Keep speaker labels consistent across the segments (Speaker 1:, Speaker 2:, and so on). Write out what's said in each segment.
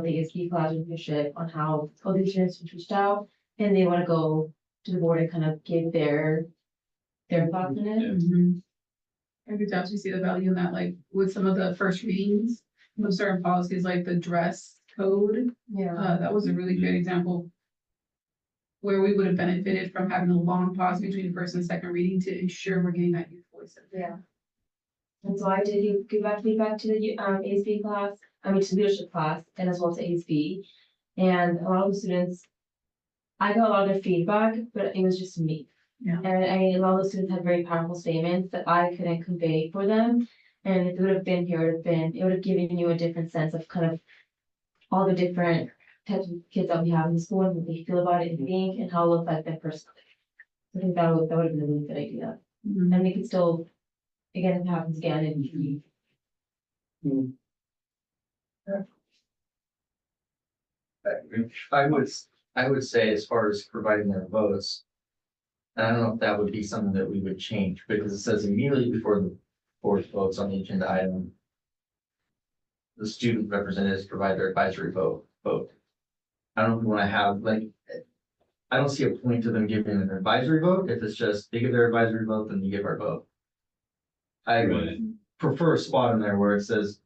Speaker 1: think is key collaboration on how both these students reached out, and they wanna go to the board and kind of give their their thoughts on it.
Speaker 2: Mm-hmm. I could definitely see the value in that, like with some of the first readings of certain policies, like the dress code,
Speaker 1: Yeah.
Speaker 2: uh, that was a really good example. Where we would have benefited from having a long pause between first and second reading to ensure we're getting that youth voice. in there.
Speaker 1: Yeah. And so I did give- give back feedback to the um ASB class, I mean to leadership class and as well to ASB. And a lot of the students, I got a lot of their feedback, but it was just me.
Speaker 2: Yeah.
Speaker 1: And I mean, a lot of the students had very powerful statements that I couldn't convey for them. And if it would have been here, it would have been, it would have given you a different sense of kind of all the different types of kids that we have in the school and what they feel about it and think and how it looks like them personally. I think that would, that would have been a really good idea.
Speaker 3: Mm-hmm.
Speaker 2: Mhm.
Speaker 1: And we could still, again, if it happens again, and you.
Speaker 4: I would, I would say as far as providing their votes. I don't know if that would be something that we would change, because it says immediately before the board votes on the agenda item. The student representatives provide their advisory vote, vote. I don't wanna have like. I don't see a point to them giving an advisory vote, if it's just they give their advisory vote, then you give our vote. I would prefer a spot in there where it says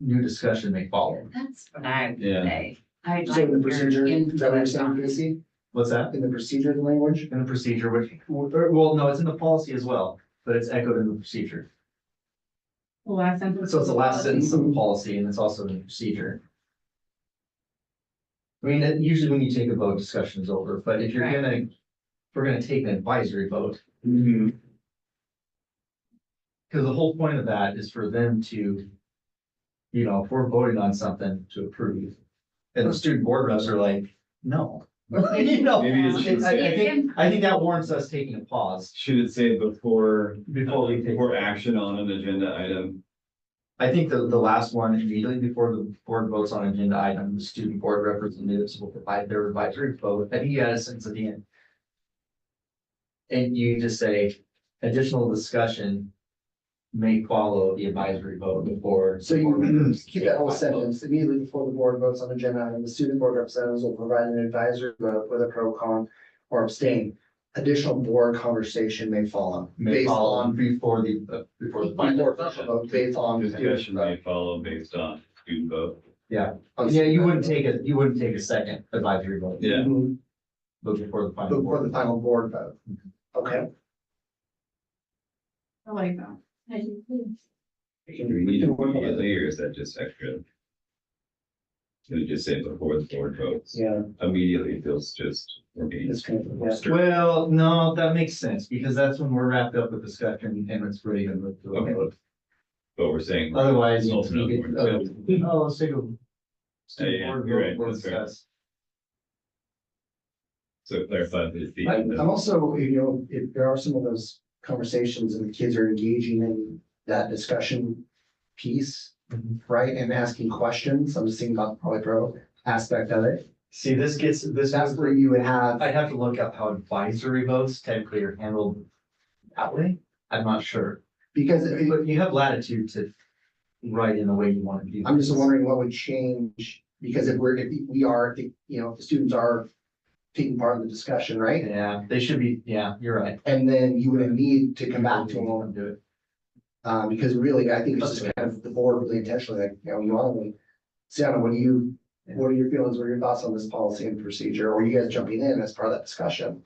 Speaker 4: new discussion may follow,
Speaker 3: That's what I would
Speaker 5: Yeah.
Speaker 3: say. I'd
Speaker 6: So
Speaker 3: like
Speaker 6: the
Speaker 3: your
Speaker 6: procedure, is that what you're
Speaker 3: input
Speaker 6: saying,
Speaker 3: on it.
Speaker 6: Casey?
Speaker 4: what's that?
Speaker 6: In the procedure language?
Speaker 4: in the procedure, which, or, well, no, it's in the policy as well, but it's echoed in the procedure.
Speaker 2: The last sentence.
Speaker 4: So it's the last sentence of the policy and it's also in the procedure. I mean, it- usually when you take a vote, discussion is over, but if you're
Speaker 3: Right.
Speaker 4: gonna, if we're gonna take an advisory vote. Cause the whole point of that is for them to, you know, if we're voting on something to approve. And the student board reps are like, no. You know,
Speaker 5: Maybe it should
Speaker 4: I I
Speaker 5: say,
Speaker 4: think, I think that warrants us taking a pause
Speaker 5: should it say before,
Speaker 4: before we take.
Speaker 5: before action on an agenda item?
Speaker 4: I think the, the last one, immediately before the board votes on agenda item, the student board representatives will provide their advisory vote, I think you had a sense at the end. And you just say, additional discussion may follow the advisory vote before.
Speaker 6: So you keep that whole sentence immediately before the board votes on agenda item, the student board representatives will provide an advisory vote with a pro con or abstain. Additional board conversation may follow.
Speaker 4: May
Speaker 6: based
Speaker 4: follow
Speaker 6: on-
Speaker 4: before the, uh, before the.
Speaker 6: Before
Speaker 4: final
Speaker 6: official
Speaker 4: vote.
Speaker 6: vote, Based on. the student
Speaker 5: Discussion may follow based on student vote.
Speaker 6: vote.
Speaker 4: Yeah, you wouldn't take a, you wouldn't take a second advisory vote,
Speaker 5: Yeah.
Speaker 6: Mhm,
Speaker 4: but before the final.
Speaker 6: Before the
Speaker 4: board.
Speaker 6: final board vote. Okay.
Speaker 2: I like that.
Speaker 5: Do we need to immediately, or is that just extra? Can it just say before the board votes?
Speaker 6: Yeah,
Speaker 5: Immediately feels just, we're being.
Speaker 6: it's kind of.
Speaker 5: Stir-
Speaker 4: Well, no, that makes sense, because that's when we're wrapped up with discussion and it's ready to move to a
Speaker 5: Okay.
Speaker 4: vote.
Speaker 5: But we're saying.
Speaker 4: Otherwise.
Speaker 5: It's also
Speaker 4: you could,
Speaker 5: not
Speaker 4: uh,
Speaker 5: important.
Speaker 4: Oh, let's take a.
Speaker 5: Yeah, Oh, yeah,
Speaker 4: board
Speaker 5: you're
Speaker 4: vote
Speaker 5: right,
Speaker 4: or
Speaker 5: that's fair.
Speaker 4: discuss.
Speaker 5: So clarify that the.
Speaker 6: I'm, I'm also, you know, if there are some of those conversations and the kids are engaging in that discussion piece,
Speaker 4: Mhm.
Speaker 6: right, and asking questions, I'm just thinking about the probably pro aspect of it.
Speaker 4: See, this gets, this,
Speaker 6: That's where you would have,
Speaker 4: I'd have to look up how advisory votes technically are handled that way. I'm not sure,
Speaker 6: because it-
Speaker 4: but you have latitude to write in the way you want to do.
Speaker 6: I'm just
Speaker 4: things.
Speaker 6: wondering what would change, because if we're, if we are, if, you know, if the students are taking part in the discussion, right?
Speaker 4: Yeah, they should be, yeah, you're right.
Speaker 6: And then you would need to come back to them,
Speaker 4: Do it.
Speaker 6: uh, because really, I think it's just kind of the board really intentionally, like, you know, you want to Sienna, what do you, what are your feelings, what are your thoughts on this policy and procedure, or you guys jumping in as part of that discussion?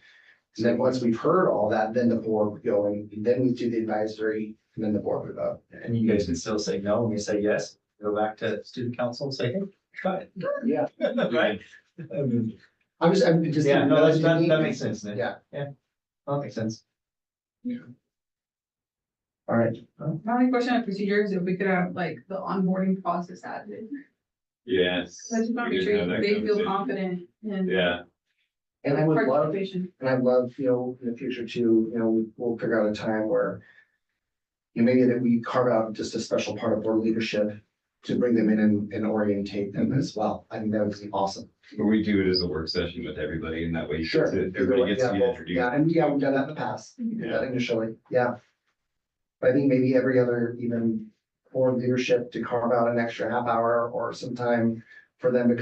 Speaker 6: And then once we've heard all that, then the board would go and then we do the advisory, and then the board would vote.
Speaker 4: And you guys can still say no, and you say yes, go back to student council and say, hey, try it.
Speaker 6: Yeah.
Speaker 4: Right? Um,
Speaker 6: I'm just, I'm just.
Speaker 4: Yeah, no, that's, that, that makes sense, Nick.
Speaker 6: Yeah.
Speaker 4: Yeah, that makes sense.
Speaker 6: All right,
Speaker 2: My only question on procedures, if we could have like the onboarding process added,
Speaker 5: Yes.
Speaker 2: I just want to
Speaker 5: we
Speaker 2: make
Speaker 5: didn't have
Speaker 2: sure
Speaker 5: that
Speaker 2: they feel
Speaker 5: conversation.
Speaker 2: confident in
Speaker 5: Yeah,
Speaker 6: and I would love
Speaker 2: participation.
Speaker 6: And I'd love, you know, in the future too, you know, we- we'll figure out a time where. You know, maybe that we carve out just a special part of board leadership to bring them in and, and orientate them as well. I think that would be awesome.
Speaker 5: but we do it as a work session with everybody and that way. you
Speaker 6: Sure.
Speaker 5: get to- Everybody gets to be
Speaker 6: Yeah, well,
Speaker 5: introduced.
Speaker 6: Yeah, and yeah, we've done that in the past, we did that initially, yeah. But I think maybe every other even board leadership to carve out an extra half hour or some time for them to